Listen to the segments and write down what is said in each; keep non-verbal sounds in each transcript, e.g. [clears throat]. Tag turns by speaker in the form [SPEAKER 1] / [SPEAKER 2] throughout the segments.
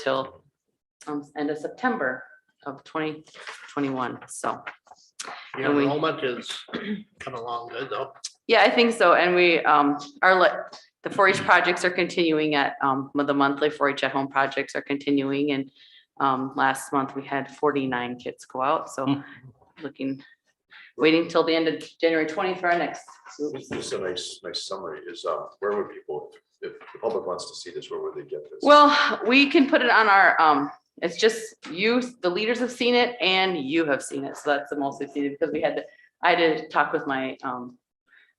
[SPEAKER 1] till um, end of September of twenty twenty-one, so.
[SPEAKER 2] Your
[SPEAKER 1] And we-
[SPEAKER 2] enrollment is coming along good though.
[SPEAKER 1] Yeah, I think so, and we um are like, the four H projects are continuing at um, the monthly four H at home projects are continuing and um, last month we had forty-nine kids go out, so looking, waiting till the end of January twentieth for our next.
[SPEAKER 3] This this is a nice, nice summary is, uh, where would people, if the public wants to see this, where would they get this?
[SPEAKER 1] Well, we can put it on our, um, it's just you, the leaders have seen it and you have seen it. So that's the most we've seen it because we had, to- I did talk with my, um,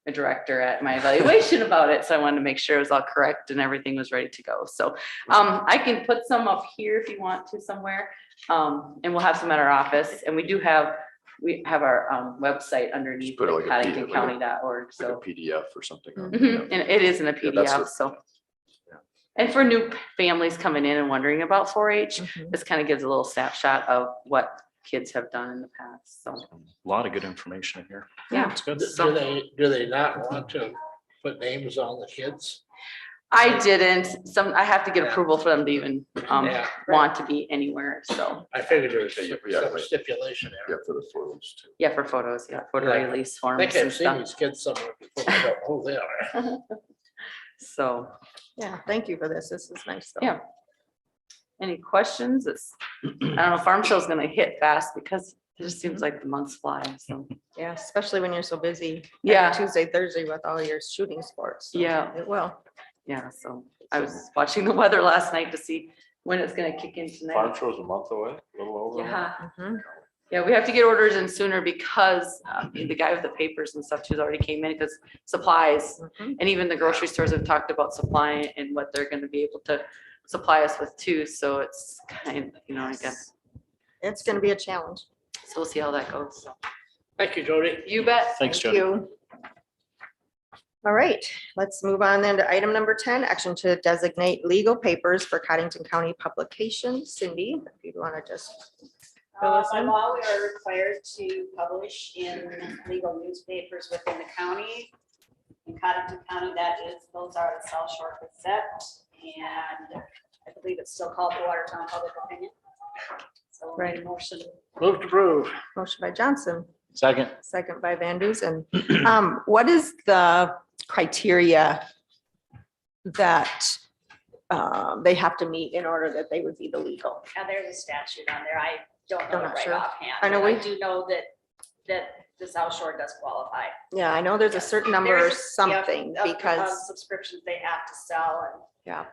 [SPEAKER 1] my director at my evaluation [laughs] about it. So I wanted to make sure it was all correct and everything was ready to go. So, um, I can put some up here if you want to somewhere. Um, and we'll have some at our office and we do have, we have our, um, website underneath
[SPEAKER 3] put it like a P- like a-
[SPEAKER 1] paddingtoncounty.org.
[SPEAKER 3] Like a
[SPEAKER 1] So.
[SPEAKER 3] PDF or something. or-
[SPEAKER 1] Mhm,
[SPEAKER 3] yeah.
[SPEAKER 1] And it is in a
[SPEAKER 3] Yeah, that's
[SPEAKER 1] PDF,
[SPEAKER 3] what-
[SPEAKER 1] so.
[SPEAKER 3] Yeah.
[SPEAKER 1] And for new p- families coming in and wondering about four H,
[SPEAKER 4] Mm-hmm.
[SPEAKER 1] this kind of gives a little snapshot of what kids have done in the past, so,
[SPEAKER 4] A lot of good information in here.
[SPEAKER 1] yeah.
[SPEAKER 4] It's good.
[SPEAKER 2] Do they, do they not want to put names on the kids?
[SPEAKER 1] I didn't, some, I have to get
[SPEAKER 2] Yeah.
[SPEAKER 1] approval for them to even, um,
[SPEAKER 2] Yeah,
[SPEAKER 1] want to be anywhere, so,
[SPEAKER 2] I figured there was
[SPEAKER 3] Yeah,
[SPEAKER 2] some
[SPEAKER 3] yeah,
[SPEAKER 2] some
[SPEAKER 3] right.
[SPEAKER 2] stipulation
[SPEAKER 3] Yeah,
[SPEAKER 2] there.
[SPEAKER 3] for the photos too.
[SPEAKER 1] yeah, for photos, yeah, photo
[SPEAKER 2] Yeah.
[SPEAKER 1] release
[SPEAKER 2] I
[SPEAKER 1] forms
[SPEAKER 2] think
[SPEAKER 1] and
[SPEAKER 2] I've seen
[SPEAKER 1] stuff,
[SPEAKER 2] these kids somewhere before. I don't know Who they are.
[SPEAKER 1] so.
[SPEAKER 5] Yeah, thank you for this. This is nice. though.
[SPEAKER 1] Yeah. Any questions? It's, I don't know, Farm Show's gonna hit fast because it just
[SPEAKER 4] Mm-hmm.
[SPEAKER 1] seems like the months fly, so.
[SPEAKER 5] Yeah, especially when you're so busy. every
[SPEAKER 1] Yeah.
[SPEAKER 5] Tuesday, Thursday with all your shooting sports. so
[SPEAKER 1] Yeah.
[SPEAKER 5] It will.
[SPEAKER 1] Yeah, so I was watching the weather last night to see when it's gonna kick in
[SPEAKER 3] Farm
[SPEAKER 1] tonight.
[SPEAKER 3] show's a month away, a little over.
[SPEAKER 1] Yeah,
[SPEAKER 5] Mhm.
[SPEAKER 1] yeah, we have to get orders in sooner because um, the guy with the papers and stuff too's already came in because supplies.
[SPEAKER 5] Mhm.
[SPEAKER 1] And even the grocery stores have talked about supply and what they're gonna be able to supply us with too, so it's kind, you know, I guess.
[SPEAKER 5] It's gonna be a challenge.
[SPEAKER 1] So we'll see how that goes.
[SPEAKER 2] Thank you, Jody.
[SPEAKER 1] You bet.
[SPEAKER 4] Thanks,
[SPEAKER 5] Thank
[SPEAKER 4] Jody.
[SPEAKER 5] you. All right, let's move on then to item number ten, action to designate legal papers for Cottington County publications. Cindy, if you want to just. fill
[SPEAKER 6] Uh,
[SPEAKER 5] us
[SPEAKER 6] By
[SPEAKER 5] in.
[SPEAKER 6] law, we are required to publish in legal newspapers within the county. In Cottington County, that is, those are the South Shore Gazette, and I believe it's still called the Watertown Public Opinion. So we need a motion,
[SPEAKER 2] Move to approve.
[SPEAKER 5] Motion by Johnson,
[SPEAKER 4] Second,
[SPEAKER 5] second by Van Dusen. [clears throat] Um, what is the criteria that um, they have to meet in order that they would be the legal?
[SPEAKER 6] now uh, there's a statute on there, I don't
[SPEAKER 5] I'm
[SPEAKER 6] know it
[SPEAKER 5] not
[SPEAKER 6] right
[SPEAKER 5] sure.
[SPEAKER 6] offhand.
[SPEAKER 5] I know
[SPEAKER 6] but
[SPEAKER 5] we-
[SPEAKER 6] do know that, that the South Shore does qualify.
[SPEAKER 5] Yeah, I know there's a certain number or
[SPEAKER 6] There's- Yep,
[SPEAKER 5] something
[SPEAKER 6] of- of
[SPEAKER 5] because,
[SPEAKER 6] Subscriptions they have to sell, and.
[SPEAKER 5] Yeah.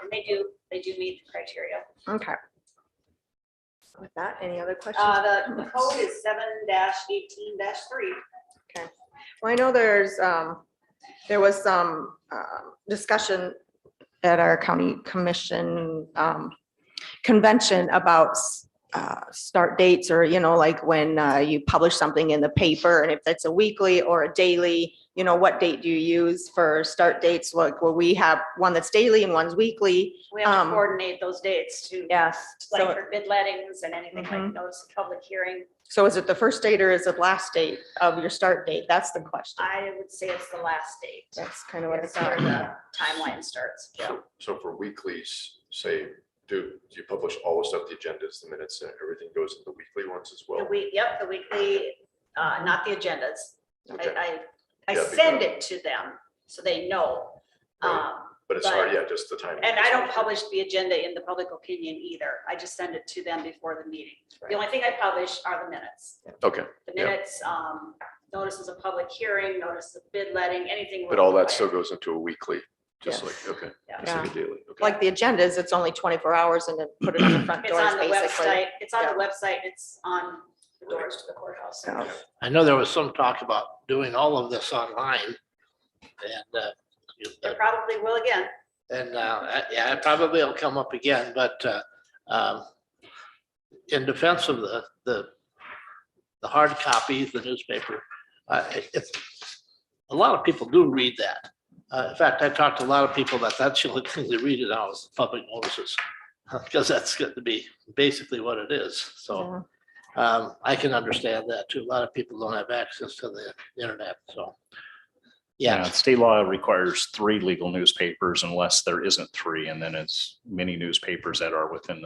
[SPEAKER 6] And they do, they do meet the criteria.
[SPEAKER 5] okay. With that, any other questions?
[SPEAKER 6] Uh, the the code is seven eighteen three.
[SPEAKER 5] Well, I know there's, um, there was some, um, discussion at our county commission, um, convention about, s- uh, start dates or, you know, like when, uh, you publish something in the paper and if that's a weekly or a daily, you know, what date do you use for start dates? Like, well, we have one that's daily and one's weekly.
[SPEAKER 6] We have
[SPEAKER 5] Um,
[SPEAKER 6] to coordinate those dates to,
[SPEAKER 5] Yes.
[SPEAKER 6] like
[SPEAKER 5] So,
[SPEAKER 6] for bid lettings and anything
[SPEAKER 5] Mhm.
[SPEAKER 6] like notice of public hearing.
[SPEAKER 5] so is it the first date or is it last date of your start date? That's the question.
[SPEAKER 6] I would say it's the last date.
[SPEAKER 5] That's kind of what
[SPEAKER 6] That's
[SPEAKER 5] it's.
[SPEAKER 6] where the timeline starts.
[SPEAKER 3] So- So for weeklies, say, do, do you publish all the stuff, the agendas, the minutes, and everything goes in the weekly ones as well?
[SPEAKER 6] The week, yep, the weekly, uh, not the agendas.
[SPEAKER 3] Okay,
[SPEAKER 6] I, I, I
[SPEAKER 3] Yeah, because-
[SPEAKER 6] send it to them so they know.
[SPEAKER 3] Right.
[SPEAKER 6] Um,
[SPEAKER 3] But it's hard, yeah, just the time.
[SPEAKER 6] And I don't publish the agenda in the public opinion either. I just send it to them before the meeting. The only thing I publish are the minutes.
[SPEAKER 3] Okay,
[SPEAKER 6] The
[SPEAKER 3] Yeah.
[SPEAKER 6] minutes, um, notices of public hearing, notice of bid letting, anything.
[SPEAKER 3] but all that
[SPEAKER 6] required.
[SPEAKER 3] still goes into a weekly, just like, okay, just like a daily, okay.
[SPEAKER 5] like the agendas, it's only twenty-four hours and then put it on the front
[SPEAKER 6] It's
[SPEAKER 5] doors,
[SPEAKER 6] on the
[SPEAKER 5] basically.
[SPEAKER 6] website, it's on the website, it's on the doors to the courthouse.
[SPEAKER 5] So,
[SPEAKER 2] I know there was some talk about doing all of this online. And, uh, you-
[SPEAKER 6] It probably will again.
[SPEAKER 2] And uh, I- yeah, it probably will come up again, but uh, um, in defense of the, the, the hard copy, the newspaper, uh, it- it's- a lot of people do read that. Uh, In fact, I talked to a lot of people that that's the only thing they read it now is public notices. [laughs] Because that's going to be basically what it is. So
[SPEAKER 5] yeah.
[SPEAKER 2] um, I can understand that too. A lot of people don't have access to the internet, so.
[SPEAKER 4] Yeah,
[SPEAKER 2] Yeah,
[SPEAKER 4] state law requires three legal newspapers unless there isn't three, and then it's many newspapers that are within the